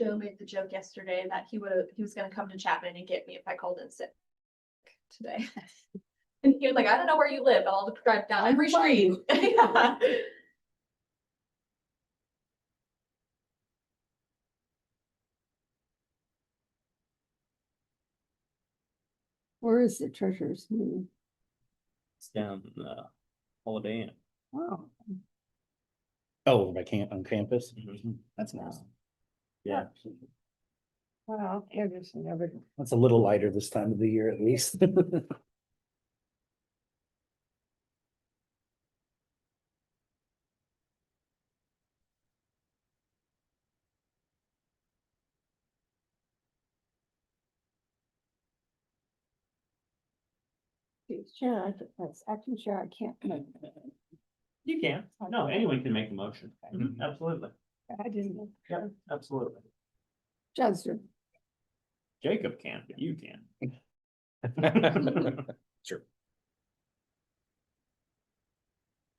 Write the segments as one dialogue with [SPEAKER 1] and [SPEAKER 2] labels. [SPEAKER 1] Joe made the joke yesterday that he would have, he was gonna come to Chapman and get me if I called in sick today. And he was like, I don't know where you live, but I'll drive down.
[SPEAKER 2] I'm
[SPEAKER 1] and find
[SPEAKER 2] fine."
[SPEAKER 1] you." Yeah.
[SPEAKER 2] Where is the treasurer's meeting?
[SPEAKER 3] It's down in the Holiday Inn.
[SPEAKER 2] Wow,
[SPEAKER 4] Oh, by camp, on campus?
[SPEAKER 3] Mhm.
[SPEAKER 4] That's nice.
[SPEAKER 3] Yeah,
[SPEAKER 2] wow, Anderson never.
[SPEAKER 4] That's a little lighter this time of the year at least.
[SPEAKER 2] Sure, I think that's acting chair, I can't, make it.
[SPEAKER 3] you can. No, anyone can make a motion. Mhm, Absolutely.
[SPEAKER 2] I didn't, know.
[SPEAKER 3] Yeah, absolutely.
[SPEAKER 2] Chester,
[SPEAKER 3] Jacob can, but you can.
[SPEAKER 4] Sure.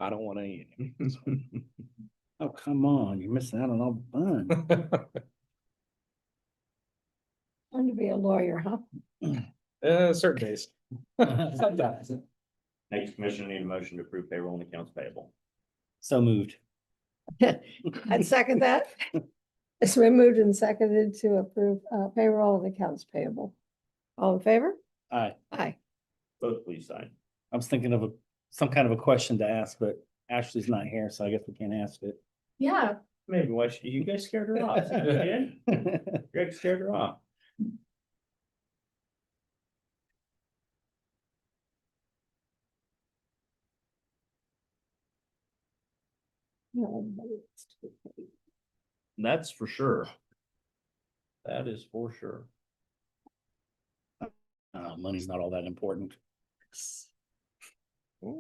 [SPEAKER 4] I don't want any. Oh, come on, you're missing out on all the fun.
[SPEAKER 2] want to be a lawyer, huh?
[SPEAKER 5] Uh, certain days. Sometimes.
[SPEAKER 3] Next commission need a motion to approve payroll and accounts payable.
[SPEAKER 4] So moved.
[SPEAKER 2] I'd second that. It's been moved and seconded to approve uh, payroll and accounts payable. All in favor?
[SPEAKER 4] Aye.
[SPEAKER 2] Aye.
[SPEAKER 3] Both please sign.
[SPEAKER 4] I was thinking of a, some kind of a question to ask, but Ashley's not here, so I guess we can't ask it.
[SPEAKER 1] Yeah,
[SPEAKER 3] Maybe why should, you guys scared her off. Yeah, Greg scared her off.
[SPEAKER 2] No, everybody gets to be paid.
[SPEAKER 3] That's for sure. That is for sure.
[SPEAKER 4] Uh, money's not all that important.
[SPEAKER 3] Did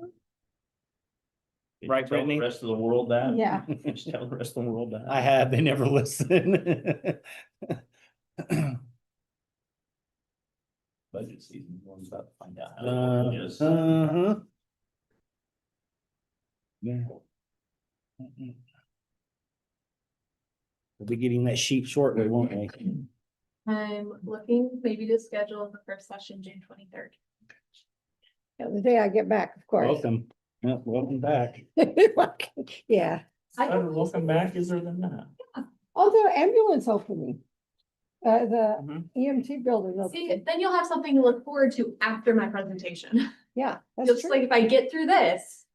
[SPEAKER 3] you tell
[SPEAKER 4] Right,
[SPEAKER 3] the
[SPEAKER 4] Brittany?
[SPEAKER 3] Rest of the world that.
[SPEAKER 2] Yeah,
[SPEAKER 3] Did you Tell the rest of the world that.
[SPEAKER 4] I have, they never listen.
[SPEAKER 3] Budget season, one's about to find out. how
[SPEAKER 4] Uh,
[SPEAKER 3] it is.
[SPEAKER 4] uh-huh. Yeah. Mm-mm. We'll be getting that sheet shortly, won't we?
[SPEAKER 1] I'm looking maybe to schedule the first session, June twenty-third.
[SPEAKER 2] Yeah, the day I get back, of course.
[SPEAKER 4] Welcome, Yeah, welcome back.
[SPEAKER 2] Yeah,
[SPEAKER 3] Better welcome back is there than not.
[SPEAKER 2] although ambulance opening. Uh, the
[SPEAKER 3] Mhm.
[SPEAKER 2] EMT building.
[SPEAKER 1] See,
[SPEAKER 2] opening.
[SPEAKER 1] then you'll have something to look forward to after my presentation.
[SPEAKER 2] Yeah, that's
[SPEAKER 1] Just
[SPEAKER 2] true.
[SPEAKER 1] like if I get through this,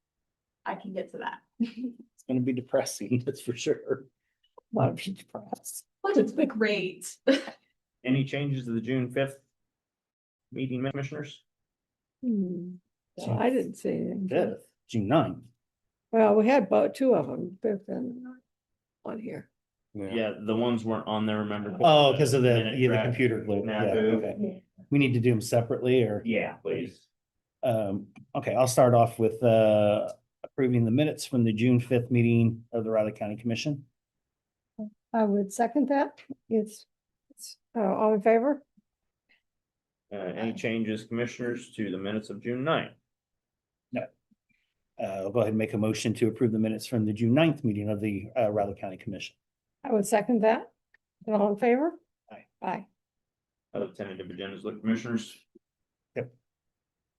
[SPEAKER 1] I can get to that.
[SPEAKER 4] It's gonna be depressing, that's for sure.
[SPEAKER 2] A lot of people press.
[SPEAKER 1] But it's great.
[SPEAKER 3] Any changes to the June fifth meeting, commissioners?
[SPEAKER 2] Hmm. So I didn't see anything.
[SPEAKER 4] Fifth, June ninth.
[SPEAKER 2] Well, we had both, two of them, fifth and ninth, on here.
[SPEAKER 3] Yeah, the ones weren't on there, remember?
[SPEAKER 4] Oh, because of the,
[SPEAKER 3] Minute
[SPEAKER 4] yeah, the
[SPEAKER 3] draft.
[SPEAKER 4] computer glitch.
[SPEAKER 3] Now
[SPEAKER 4] Yeah,
[SPEAKER 3] who?
[SPEAKER 4] okay. We need to do them separately or?
[SPEAKER 3] Yeah, please.
[SPEAKER 4] Um, okay, I'll start off with, uh, approving the minutes from the June fifth meeting of the Riley County Commission.
[SPEAKER 2] I would second that. It's, it's, uh, all in favor?
[SPEAKER 3] Uh, any changes, commissioners, to the minutes of June 9th?
[SPEAKER 4] Uh, I'll go ahead and make a motion to approve the minutes from the June 9th meeting of the, uh, Riley County Commission.
[SPEAKER 2] I would second that. And all in favor?
[SPEAKER 4] Aye.
[SPEAKER 2] Aye.
[SPEAKER 3] Other tentative agendas, look, commissioners?
[SPEAKER 4] Yep.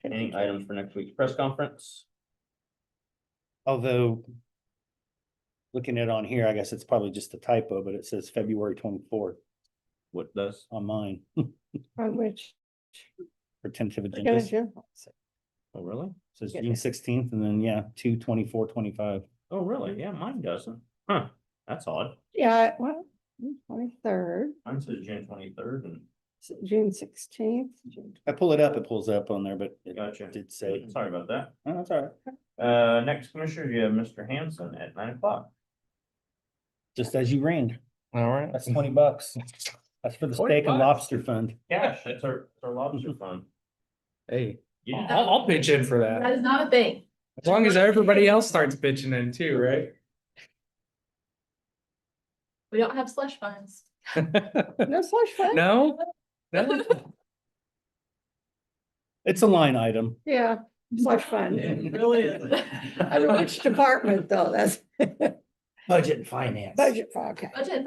[SPEAKER 3] Any items for next week's press conference?
[SPEAKER 4] Although looking at on here, I guess it's probably just a typo, but it says February twenty-fourth
[SPEAKER 3] What does?
[SPEAKER 4] on mine
[SPEAKER 2] On which?
[SPEAKER 4] for tentative
[SPEAKER 2] Gonna
[SPEAKER 4] agendas. It
[SPEAKER 2] do.
[SPEAKER 3] Oh, really?
[SPEAKER 4] Says
[SPEAKER 2] Yeah.
[SPEAKER 4] June sixteenth and then, yeah, two twenty-four, twenty-five.
[SPEAKER 3] Oh, really? Yeah, mine doesn't. Huh, that's odd.
[SPEAKER 2] Yeah, well, twenty-third,
[SPEAKER 3] Mine says June twenty-third and.
[SPEAKER 2] June sixteenth.
[SPEAKER 4] I pull it up, it pulls up on there, but it
[SPEAKER 3] Gotcha.
[SPEAKER 4] did say,
[SPEAKER 3] Sorry about that.
[SPEAKER 4] oh, that's all right.
[SPEAKER 3] Uh, next commissioner, you have Mr. Hanson at nine o'clock.
[SPEAKER 4] Just as you ran,
[SPEAKER 5] All right.
[SPEAKER 4] that's twenty bucks. That's for the
[SPEAKER 5] 20
[SPEAKER 4] steak and
[SPEAKER 5] bucks?
[SPEAKER 4] lobster fund.
[SPEAKER 3] Cash, that's our, it's our lobster fund.
[SPEAKER 5] Hey,
[SPEAKER 3] Yeah.
[SPEAKER 5] I'll, I'll pitch in for that.
[SPEAKER 1] That is not a thing.
[SPEAKER 5] As long as everybody else starts bitching in too, right?
[SPEAKER 1] We don't have slush funds.
[SPEAKER 2] No slush fund?
[SPEAKER 5] No? No?
[SPEAKER 4] It's a line item.
[SPEAKER 2] Yeah, slush fund.
[SPEAKER 5] Yeah.
[SPEAKER 2] I don't know which department though, that's
[SPEAKER 4] Budget and finance.
[SPEAKER 2] budget, for- okay.
[SPEAKER 1] Budget